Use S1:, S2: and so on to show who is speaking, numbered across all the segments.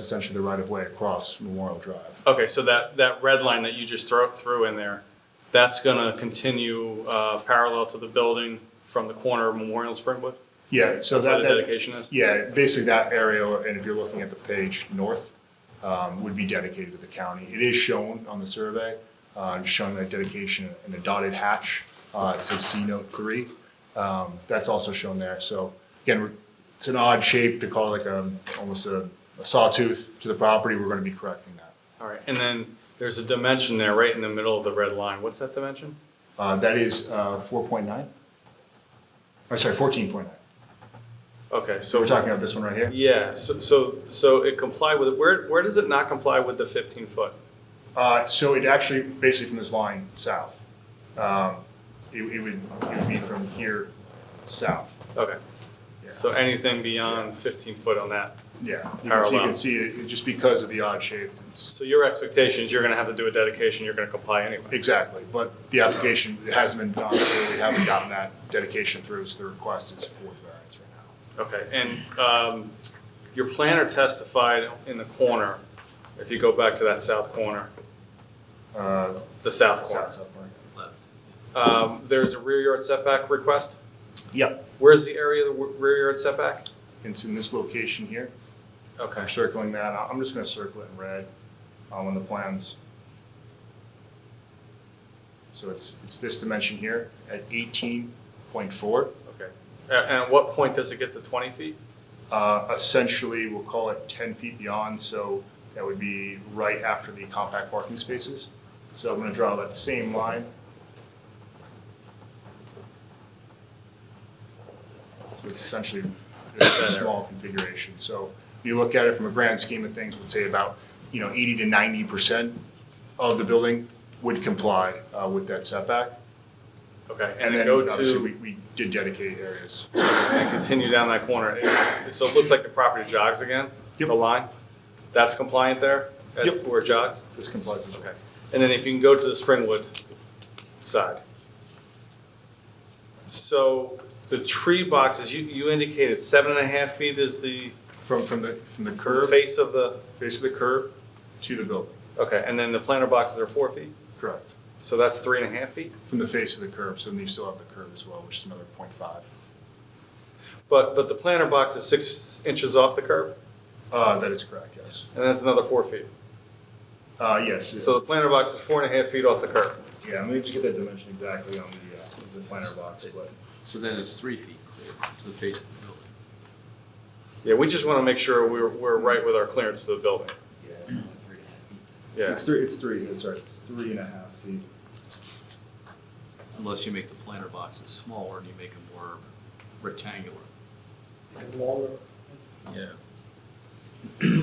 S1: essentially the right of way across Memorial Drive.
S2: Okay, so that, that red line that you just throw, threw in there, that's gonna continue, uh, parallel to the building from the corner of Memorial and Springwood?
S1: Yeah, so
S2: That's where
S1: that,
S2: the
S1: that,
S2: dedication is?
S1: yeah, basically that area, and if you're looking at the page north, um, would be dedicated to the county. It is shown on the survey, uh, just showing that dedication in a dotted hatch, uh, it says C note three. Um, that's also shown there, so again, we're- it's an odd shape to call it like a, almost a a sawtooth to the property, we're gonna be correcting that.
S2: All right, and then there's a dimension there right in the middle of the red line. What's that dimension?
S1: Uh, that is, uh, four point nine? Or sorry, fourteen point nine.
S2: Okay, so.
S1: So we're talking about this one right here?
S2: Yeah, so, so, so it complied with, where, where does it not comply with the fifteen foot?
S1: Uh, so it actually, basically from this line south, um, it, it would, it would be from here south.
S2: Okay,
S1: Yeah.
S2: so anything beyond fifteen foot on that.
S1: Yeah, you can see, you
S2: Parallel.
S1: can see it, it- just because of the odd shape. it's-
S2: So your expectations, you're gonna have to do a dedication, you're gonna comply anyway.
S1: Exactly, but the application it hasn't been done, so we haven't gotten that dedication through, so the request is for the variance right now.
S2: Okay, and, um, your planner testified in the corner, if you go back to that south corner,
S1: Uh,
S2: the south corner.
S1: south, south corner.
S2: Um, there's a rear yard setback request.
S1: Yep,
S2: Where's the area of the w- rear yard setback?
S1: it's in this location here.
S2: Okay,
S1: I'm circling that, I- I'm just gonna circle it in red, um, on the plans. So it's, it's this dimension here at eighteen point four.
S2: okay. A- And at what point does it get to twenty feet?
S1: Uh, essentially, we'll call it ten feet beyond, so that would be right after the compact parking spaces. So I'm gonna draw that same line. So it's essentially just a small configuration, so if you look at it from a grand scheme of things, would say about, you know, eighty to ninety percent of the building would comply, uh, with that setback.
S2: Okay,
S1: And
S2: and
S1: then
S2: then go
S1: obviously,
S2: to.
S1: we, we did dedicate areas.
S2: continue down that corner. It- So it looks like the property jogs again, the
S1: Yep.
S2: line. That's compliant there? at-
S1: Yep.
S2: Where it jogs?
S1: This complies as well.
S2: Okay. And then if you can go to the Springwood side. So the tree boxes, you, you indicated seven and a half feet is the
S1: From, from the, from the curve.
S2: face of the,
S1: base of the curb to the building.
S2: okay, and then the planter boxes are four feet?
S1: Correct.
S2: So that's three and a half feet?
S1: From the face of the curb, so then you still have the curb as well, which is another point five.
S2: But, but the planter box is six inches off the curb,
S1: Uh, that is correct, yes.
S2: and that's another four feet.
S1: Uh, yes.
S2: So the planter box is four and a half feet off the curb.
S1: Yeah, let me just get that dimension exactly on the, uh, the planner box, but.
S3: So then it's three feet clear to the face of the building.
S2: Yeah, we just want to make sure we're, we're right with our clearance to the building.
S4: Yeah, it's not three and a half feet.
S2: Yeah,
S4: It's three, it's three, that's right, it's three and a half feet.
S3: Unless you make the planter boxes smaller and you make them more rectangular. Longer. Yeah.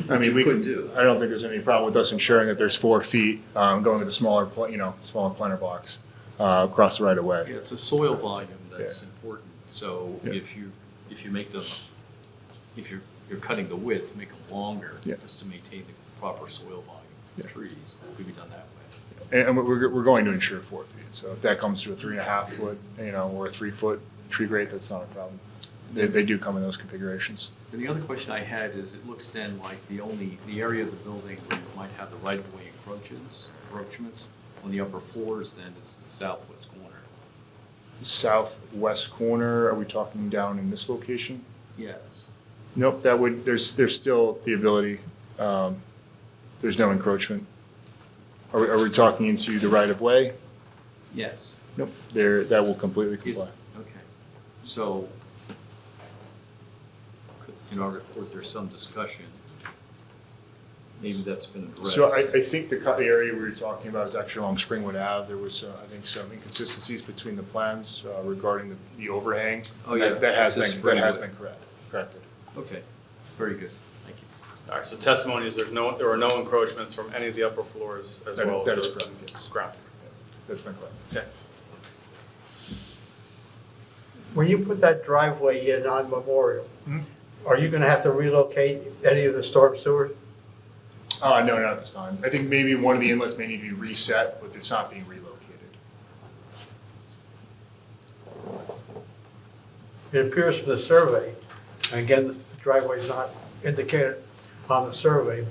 S1: I mean, we
S4: Couldn't
S1: could
S4: do.
S1: do, I don't think there's any problem with us ensuring that there's four feet, um, going with a smaller, pla- you know, smaller planter box, uh, across the right of way.
S3: Yeah, it's a soil volume that's important, so
S1: Yeah.
S3: if you, if you make them, if you're, you're cutting the width, make them longer,
S1: Yeah.
S3: just to maintain the proper soil volume for the
S1: Yeah.
S3: trees, could be done that way.
S1: And, and we're, we're going to ensure four feet, so if that comes to a three and a half foot, you know, or a three foot tree grate, that's not a problem. They, they do come in those configurations.
S3: And the other question I had is, it looks then like the only, the area of the building where you might have the right-of-way encroachments, encroachments on the upper floors then is the southwest corner.
S1: Southwest corner, are we talking down in this location?
S3: Yes.
S1: Nope, that would, there's, there's still the ability, um, there's no encroachment. Are we, are we talking into the right of way?
S3: Yes.
S1: Nope, there, that will completely comply.
S3: Is, okay, so could- in our report, there's some discussion. Maybe that's been addressed.
S1: So I, I think the cut area we were talking about is actually along Springwood Ave. There was, uh, I think, some inconsistencies between the plans uh, regarding the, the overhang.
S3: Oh, yeah.
S1: That- That has
S3: This is
S1: been, that has
S3: Springwood.
S1: been correct, corrected.
S3: Okay, very good, thank you.
S2: all right, so testimony is there's no, there are no encroachments from any of the upper floors as
S1: That-
S2: well
S1: that
S2: as
S1: is correct, yes.
S2: the ground.
S1: That's been corrected.
S2: Okay,
S5: When you put that driveway in on Memorial, are you gonna have to relocate any of the storm sewers?
S1: Uh, no, not at this time. I think maybe one of the inlets may need to be reset, but it's not being relocated.
S5: It appears from the survey, again, the driveway's not indicated on the survey,